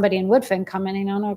somebody in Woodfin commenting on a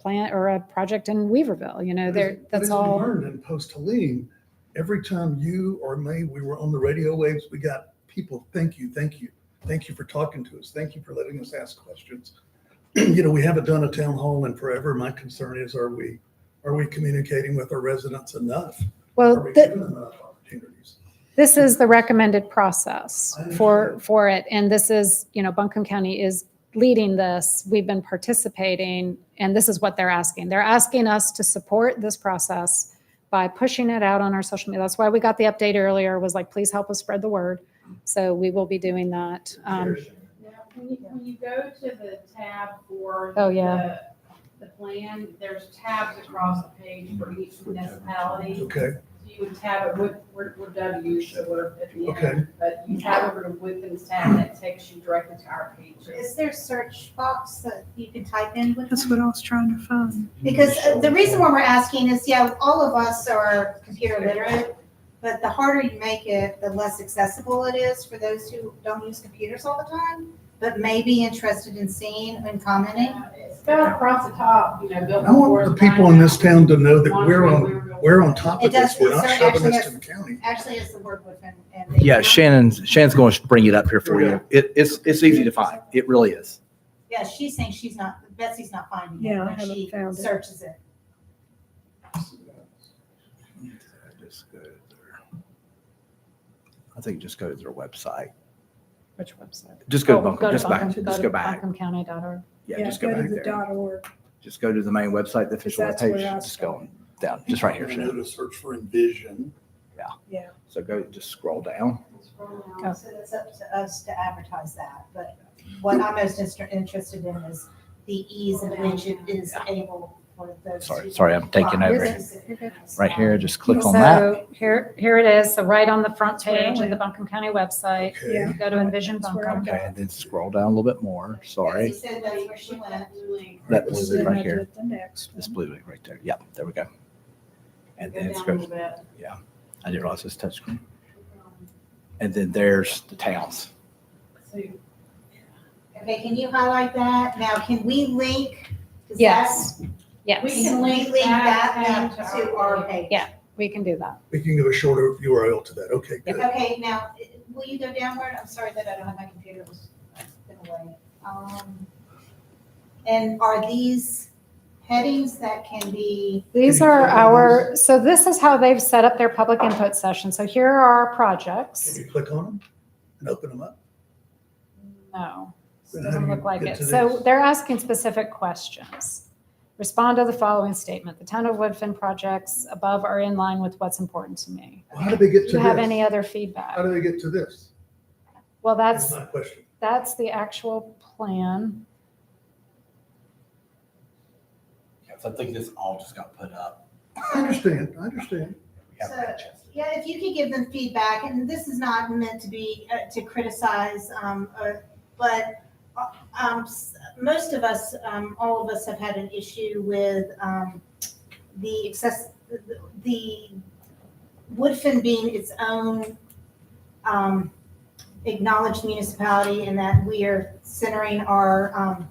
plant or a project in Weaverville, you know, there, But that's as we all. Learned in post Helene, every time you or me, we were on the radio waves, we got people, thank you, thank you, thank you for talking to us, thank you for letting us ask questions. You know, we haven't done a town hall in forever. My concern is, are we, are we communicating with our residents enough? Are Well, we thi- giving them enough opportunities? this is the recommended process I for, understand. for it. And this is, you know, Buncombe County is leading this. We've been participating and this is what they're asking. They're asking us to support this process by pushing it out on our social media. That's why we got the update earlier was like, please help us spread the word. So we will be doing that. Um, Now, when you, when you go to the tab for. Oh, yeah. The the plan, there's tabs across the page for each municipality. Okay, So you would tab it with, where, where W should work at the Okay. end. But you tab over to Woodfin's tab that takes you directly to our pages. Is there a search box that you can type in with? That's them? what I was trying to find. Because uh, the reason why we're asking is, yeah, all of us are computer literate, but the harder you make it, the less accessible it is for those who don't use computers all the time, but may be interested in seeing and commenting. It's down across the top, you know, built. I want the people in this town to know that we're on, we're on top of It does- this. We're it not shopping this certainly to actually the county. Actually, it's the word Woodfin. and they- Yeah, Shannon's, Shannon's going to bring it up here for you. It, it's, it's easy to find. It really is. Yeah, she's saying she's not, Betsy's not finding it Yeah, I when haven't she found it. searches it. I think just go to their website. Which website? Just go to Oh, Buncombe, just back, Buncombe- just to go back. BuncombeCounty.org. Yeah, just go to back the there. dot org. Just go to the main website, the official That's where webpage. I Just go on down, just right here, I know Shannon. to search for envision. So go, just scroll down. Oh. So it's up to us to advertise that, but what I'm most inter- interested in is the ease in which it is able for those. Sorry, who- sorry, I'm taking Well, over. this is- Right here, just click on that. So here, here it is. So right on the front where I page of went. the Buncombe County website, Okay. Yeah. go to Envision That's where I Buncombe. Okay, and then scroll down a little bit more. Sorry. She said that's where she went. That blue Then link I right here. did The next This one. blue link right there. Yep, there we go. And Go then down it's a little go, bit. I didn't realize it's touchscreen. And then there's the towns. So Okay, can you highlight that? Now, can we link? does Yes, that- We yes, can link that link to our page. Yeah. we can do that. We can give a shorter URL to that. Okay, good. Okay, now, will you go downward? I'm sorry that I don't have my computer, it was it's been away. Um, And are these headings that can be, These are our, so this is how they've set up their public input session. So here are our Can projects. you click on them and open them up? No, Then how do doesn't you look like get it. to So this? they're asking specific questions. Respond to the following statement. The town of Woodfin projects above are in line with what's important to me. Well, How do they get Do to you have any this? other How feedback? do they get to this? Well, that's, My question. that's the actual plan. So I think this all just got put up. I understand, I understand. We haven't had a chance. yeah, if you could give them feedback, and this is not meant to be, uh, to criticize, um, uh, but uh, um, s- most of us, um, all of us have had an issue with um, the excess, the- the Woodfin being its own um, acknowledged municipality and that we are centering our, um,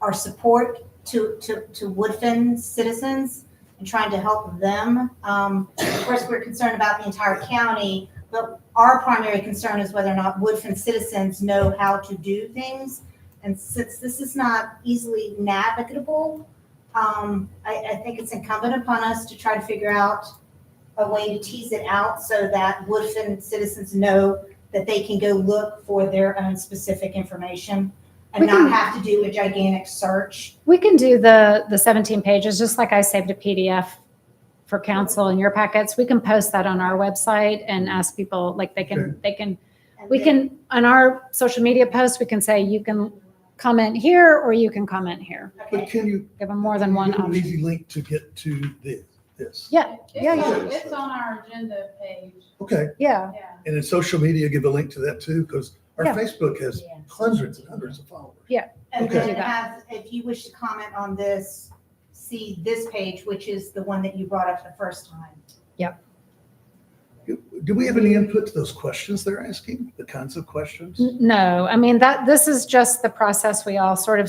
our support to, to, to Woodfin citizens and trying to help them. Um, Of course, we're concerned about the entire county, but our primary concern is whether or not Woodfin citizens know how to do things. And since this is not easily navigable, um, I, I think it's incumbent upon us to try to figure out a way to tease it out so that Woodfin citizens know that they can go look for their own specific information and We can- not have to do a gigantic search. We can do the, the 17 pages, just like I saved a PDF for council in your packets. We can post that on our website and ask people, like, they can, they can, and we then- can, on our social media posts, we can say, you can comment here, or you can comment here. Okay. But can you? Give them more than one give them An option. easy link to get to this, this. Yeah, yeah, It's yeah. on- It's on our agenda page, Okay, Yeah, yeah. and in social media, give a link to that too, because our Yeah. Facebook has Yeah. hundreds and hundreds of followers. And Okay. then Do that. have, if you wish to comment on this, see this page, which is the one that you brought up the first time. Do we have any input to those questions they're asking, the kinds of questions? N- no, I mean, that, this is just the process we all sort of